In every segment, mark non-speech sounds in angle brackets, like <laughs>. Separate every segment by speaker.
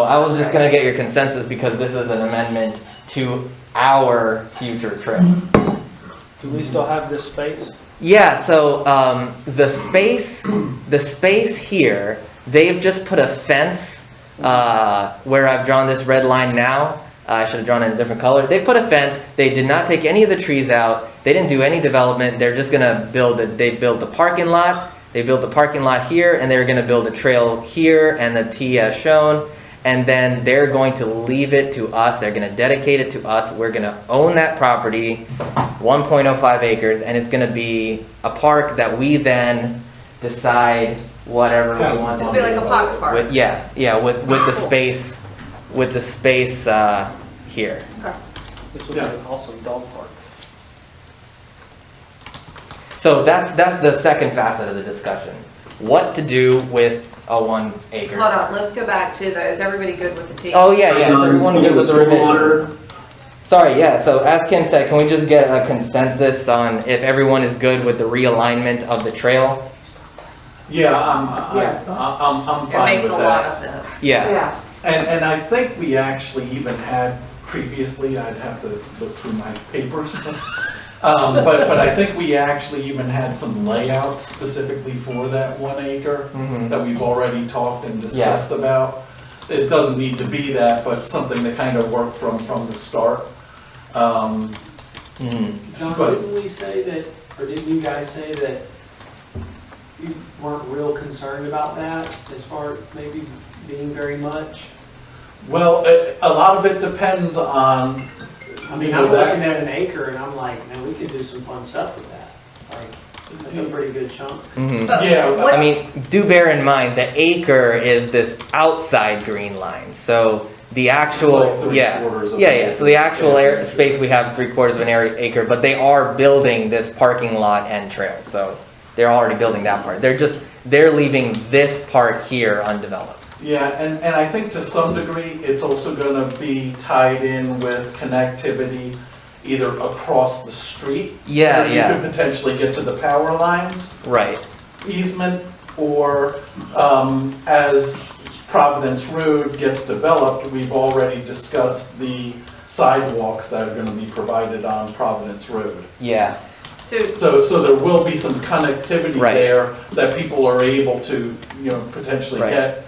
Speaker 1: I was just gonna get your consensus because this is an amendment to our future trip.
Speaker 2: Do we still have this space?
Speaker 1: Yeah, so um, the space, the space here, they've just put a fence uh, where I've drawn this red line now. Uh, I should have drawn it in a different color. They put a fence. They did not take any of the trees out. They didn't do any development. They're just gonna build it. They built the parking lot. They built the parking lot here, and they're gonna build a trail here and the T as shown. And then they're going to leave it to us. They're gonna dedicate it to us. We're gonna own that property. 1.05 acres, and it's gonna be a park that we then decide whatever we want. to
Speaker 3: It'll be like a
Speaker 1: do
Speaker 3: pocket park.
Speaker 1: With, yeah, yeah, with, with the space, with the space, uh, here.
Speaker 2: This would be an awesome dog park.
Speaker 1: So that's, that's the second facet of the discussion. What to do with a one acre?
Speaker 3: Hold on, let's go back to those. Everybody good with the team?
Speaker 1: Oh, yeah, yeah, is everyone good with the revision?
Speaker 4: Water,
Speaker 1: Sorry, yeah, so as Kim said, can we just get a consensus on if everyone is good with the realignment of the trail?
Speaker 4: Yeah, I'm, I-
Speaker 5: Yeah.
Speaker 4: I'm, I'm
Speaker 3: It
Speaker 4: fine
Speaker 3: makes
Speaker 4: with
Speaker 3: a lot of
Speaker 4: that.
Speaker 3: sense.
Speaker 1: Yeah,
Speaker 5: Yeah,
Speaker 4: And, and I think we actually even had previously, I'd have to look through my papers. <laughs> Um, but, but I think we actually even had some layouts specifically for that one acre
Speaker 1: Mhm.
Speaker 4: that we've already talked and discussed about. It doesn't need to be that, but something to kind of work from, from the start. Um,
Speaker 1: Mhm.
Speaker 6: John,
Speaker 4: But-
Speaker 6: didn't we say that, or didn't you guys say that you weren't real concerned about that as far as maybe being very much?
Speaker 4: Well, a, a lot of it depends on,
Speaker 6: I mean,
Speaker 4: You
Speaker 6: I'm
Speaker 4: know, that-
Speaker 6: looking at an acre and I'm like, man, we could do some fun stuff with that. Like, that's a pretty good chunk.
Speaker 1: mhm.
Speaker 3: But
Speaker 4: Yeah,
Speaker 3: what-
Speaker 1: I mean, do bear in mind the acre is this outside green line, so the actual
Speaker 4: like three
Speaker 1: yeah
Speaker 4: quarters of
Speaker 1: yeah
Speaker 4: an
Speaker 1: yeah.
Speaker 4: acre.
Speaker 1: So the actual
Speaker 4: Yeah.
Speaker 1: air, space we have is three quarters of an area, acre, but they are building this parking lot and trail, so they're already building that part. They're just they're leaving this part here undeveloped.
Speaker 4: Yeah, and, and I think to some degree, it's also gonna be tied in with connectivity either across the street.
Speaker 1: Yeah,
Speaker 4: where You
Speaker 1: yeah,
Speaker 4: could potentially get to the power lines
Speaker 1: right.
Speaker 4: easement, or, um, as Providence Road gets developed, we've already discussed the sidewalks that are gonna be provided on Providence Road.
Speaker 1: Yeah,
Speaker 3: So,
Speaker 4: So, so there will be some connectivity
Speaker 1: Right.
Speaker 4: there that people are able to, you know, potentially
Speaker 1: Right.
Speaker 4: get,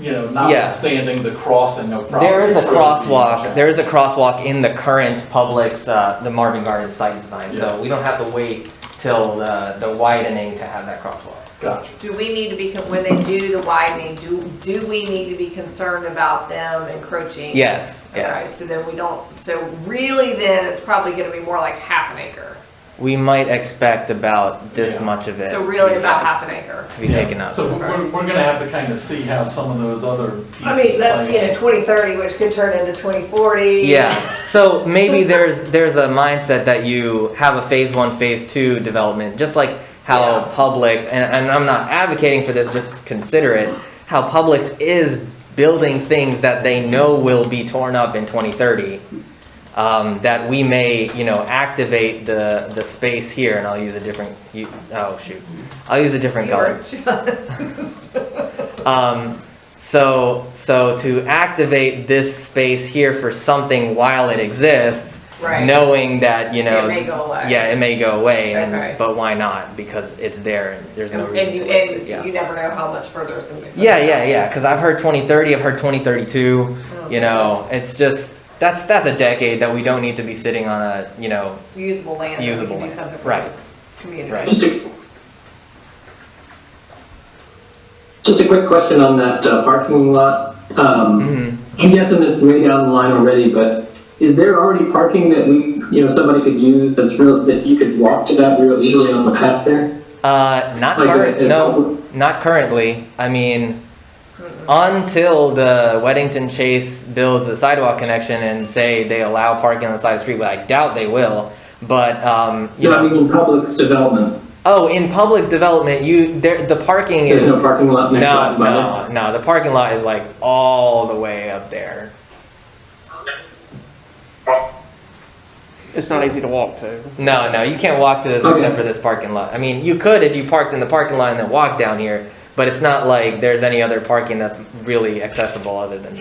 Speaker 4: you know, notwithstanding the crossing of property.
Speaker 1: there is a crosswalk. There is a crosswalk in the current Publix, uh, the Marvin Gardens site design, so
Speaker 4: Yeah.
Speaker 1: we don't have to wait till the the widening to have that crosswalk.
Speaker 4: Gotcha.
Speaker 3: do we need to be, con- when they do the widening, do, do we need to be concerned about them encroaching?
Speaker 1: Yes,
Speaker 3: Okay,
Speaker 1: yes.
Speaker 3: so then we don't, so really then it's probably gonna be more like half an acre.
Speaker 1: We might expect about this
Speaker 4: Yeah.
Speaker 1: much of it
Speaker 3: So really about half an acre.
Speaker 1: to be taken up.
Speaker 4: So we're, we're gonna have to kind of see how some of those other pieces.
Speaker 5: I mean, that's,
Speaker 4: play
Speaker 5: you know,
Speaker 4: in.
Speaker 5: twenty thirty, which could turn into twenty forty.
Speaker 1: yeah. So maybe there's there's a mindset that you have a phase one, phase two development, just like how
Speaker 3: Yeah.
Speaker 1: Publix and, and I'm not advocating for this, just consider it. How Publix is building things that they know will be torn up in 2030. Um, that we may, you know, activate the the space here, and I'll use a different. You, oh shoot, I'll use a different color.
Speaker 5: <laughs>
Speaker 1: Um, so, so to activate this space here for something while it exists,
Speaker 3: Right.
Speaker 1: knowing that you know,
Speaker 3: It may go away.
Speaker 1: yeah, it may go away, and
Speaker 3: Okay.
Speaker 1: but why not? Because it's there, and there's no
Speaker 3: And
Speaker 1: reason
Speaker 3: and you,
Speaker 1: to waste it.
Speaker 3: and
Speaker 1: Yeah.
Speaker 3: you never know how much further it's gonna be.
Speaker 1: yeah, yeah, yeah. Because I've heard 2030, I've heard 2032. You know, it's just that's that's a decade that we don't need to be sitting on a you know <clears throat>
Speaker 3: Usable land, that we
Speaker 1: usable
Speaker 3: can do
Speaker 1: land.
Speaker 3: something for
Speaker 1: Right.
Speaker 3: the community.
Speaker 1: Right.
Speaker 7: Just a, just a quick question on that uh, parking lot. Um,
Speaker 1: Mhm.
Speaker 7: I'm guessing it's way down the line already, but is there already parking that we, you know, somebody could use that's real, that you could walk to that real easily on the path there?
Speaker 1: Uh, not
Speaker 7: Like a-
Speaker 1: current.
Speaker 7: a
Speaker 1: No,
Speaker 7: public-
Speaker 1: not currently. I mean, until the Weddington Chase builds a sidewalk connection and say they allow parking on the side of the street, but I doubt they will. But um, you
Speaker 7: No, I
Speaker 1: know,
Speaker 7: mean, in Publix development,
Speaker 1: oh, in Publix development, you there the parking is
Speaker 7: there's no parking lot next to
Speaker 1: no,
Speaker 7: that.
Speaker 1: no, no. The parking lot is like all the way up there.
Speaker 8: It's not easy to walk to.
Speaker 1: No, no, you can't walk to this
Speaker 7: Okay.
Speaker 1: except for this parking lot. I mean, you could if you parked in the parking lot and then walked down here, but it's not like there's any other parking that's really accessible other than